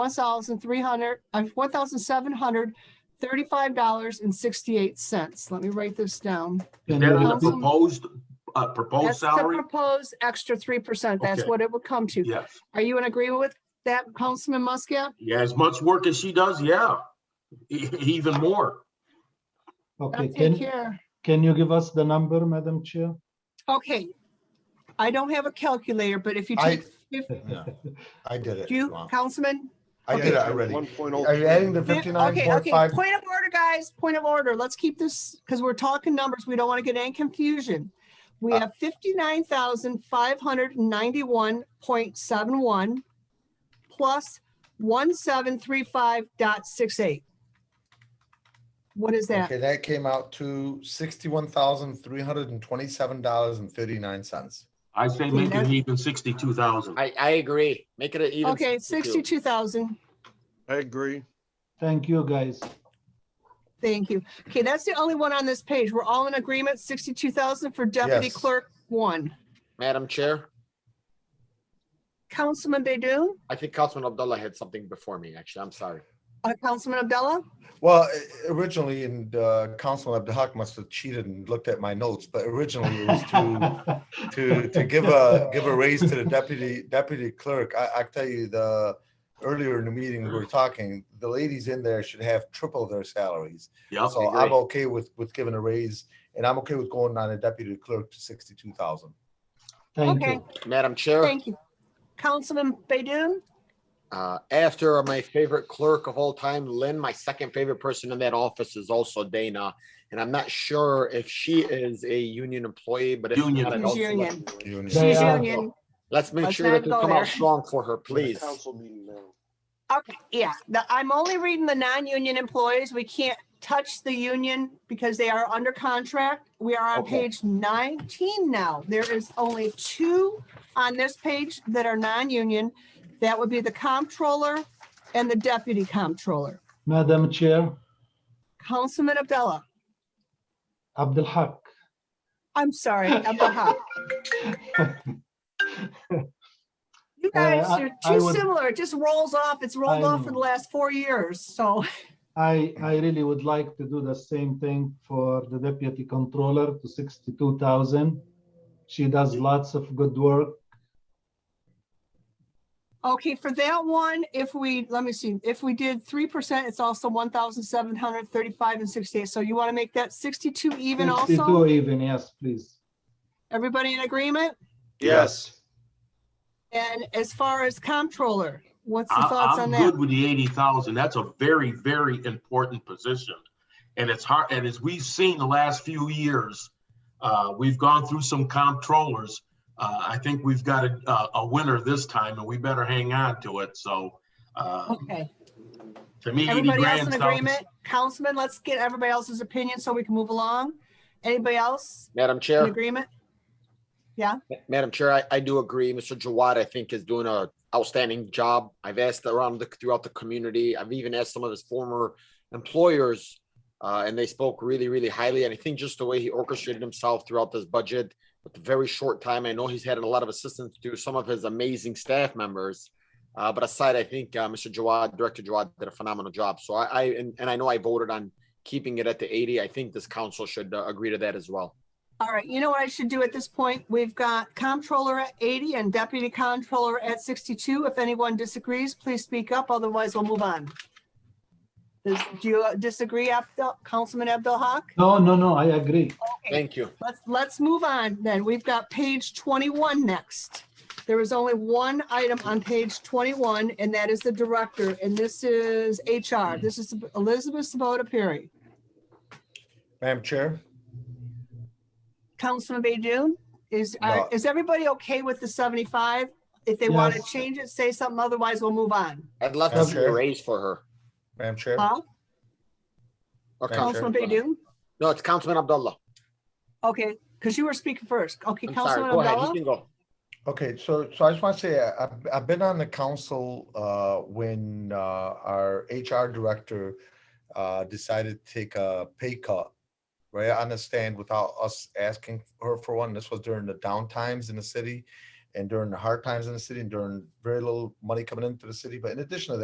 one thousand three hundred, uh, four thousand seven hundred thirty-five dollars and sixty-eight cents. Let me write this down. Is And that then a Um, proposed, uh, proposed That's the salary? proposed extra three percent. That's Okay. what it would come to. Yes, Are you in agreement with that, Councilman Muscat? yeah, as much work as she does, yeah, E- even more. Okay, Take can, care. can you give us the number, Madam Chair? Okay. I don't have a calculator, but if you I- take, fif- Yeah, I did it. do you, Wow. Councilman? I did it already. One point oh. Are you adding the Yeah, fifty-nine okay, point okay. five? Point of order, guys, point of order. Let's keep this, because we're talking numbers. We don't want to get any confusion. We Uh, have fifty-nine thousand five hundred ninety-one point seven one plus one seven three five dot six eight. What is that? Okay, that came out to sixty-one thousand, three hundred and twenty-seven dollars and thirty-nine cents. I say See, make it that's- even sixty-two thousand. I, I agree. Make it an even. Okay, sixty-two thousand. I agree. Thank you, guys. Thank you. Okay, that's the only one on this page. We're all in agreement, sixty-two thousand for deputy Yes. clerk one. Madam Chair, Councilman Baydun, I think Councilman Abdullah had something before me, actually. I'm sorry. uh, Councilman Abdullah? Well, i- originally, and uh, Councilman Abdahak must have cheated and looked at my notes, but originally it was to, to, to give a, give a raise to the deputy, deputy clerk. I, I tell you, the, earlier in the meeting, we were talking, the ladies in there should have triple their salaries. Yep, So I'm okay with, with giving a raise, and I'm okay with going on a deputy clerk to sixty-two thousand. Thank Okay, you. Madam Chair, thank you. Councilman Baydun? uh, after my favorite clerk of all time, Lynn, my second favorite person in that office is also Dana. And I'm not sure if she is a union employee, but if. she Union. is, I'd She's also like- union. They She's are- union. Let's make Let's sure not that we go come there. out strong for her, please. Council meeting now. Okay, yeah, the, I'm only reading the non-union employees. We can't touch the union because they are under contract. We are on Okay. page nineteen now. There is only two on this page that are non-union. That would be the comptroller and the deputy comptroller. Madam Chair, Councilman Abdullah, Abdul Haq. I'm sorry, Abdullah. You guys, Uh, I- you're I too would- similar. It just rolls off. It's rolled I off for the know. last four years, so. I, I really would like to do the same thing for the deputy controller to sixty-two thousand. She does lots of good work. Okay, for that one, if we, let me see, if we did three percent, it's also one thousand seven hundred thirty-five and sixty-eight. So you want to make that sixty-two even also? Sixty-two even, yes, please. Everybody in agreement? Yes. And as far as comptroller, what's the I- thoughts on I'm that? good with the eighty thousand. That's a very, very important position. And it's hard, and as we've seen the last few years, uh, we've gone through some comptrollers. Uh, I think we've got a, a- a winner this time and we better hang on to it. So, uh, Okay, to me, eighty everybody else grand in sounds. agreement? Councilman, let's get everybody else's opinion so we can move along. Anybody else Madam in Chair, agreement? Madam Chair, I, I do agree. Mr. Jawad, I think, is doing a outstanding job. I've asked around the, throughout the community. I've even asked some of his former employers, uh, and they spoke really, really highly. And I think just the way he orchestrated himself throughout this budget with the very short time. I know he's had a lot of assistance to some of his amazing staff members. Uh, but aside, I think uh, Mr. Jawad, Director Jawad, did a phenomenal job. So I, I and, and I know I voted on keeping it at the 80. I think this council should uh, agree to that as well. All right, you know what I should do at this point? We've got comptroller at 80 and deputy comptroller at 62. If anyone disagrees, please speak up, otherwise we'll move on. Does- Do you disagree, Abdul- Councilman Abdul Haq? No, no, no, I agree. Thank you. Let's, let's move on then. We've got page 21 next. There is only one item on page 21, and that is the director, and this is HR. This is Elizabeth Sabota Perry. Madam Chair? Councilman Baydun, is, are- No. is everybody okay with the 75? If they want to Yes. change it, say something, otherwise we'll move on. I'd love to Madam see a Chair. raise for her. Madam Chair? Huh? Or Madam Chair. Councilman Baydun? No, it's Councilman Abdullah. Okay, because you were speaking first. Okay, I'm sorry. Councilman Go ahead. You Abdullah? can go. Okay, so, so I just want to say, I- I've, I've been on the council, uh, when, uh, our HR director, uh, decided to take a pay cut. Right, I understand without us asking her for one, this was during the down times in the city and during the hard times in the city and during very little money coming into the city, but in addition to that.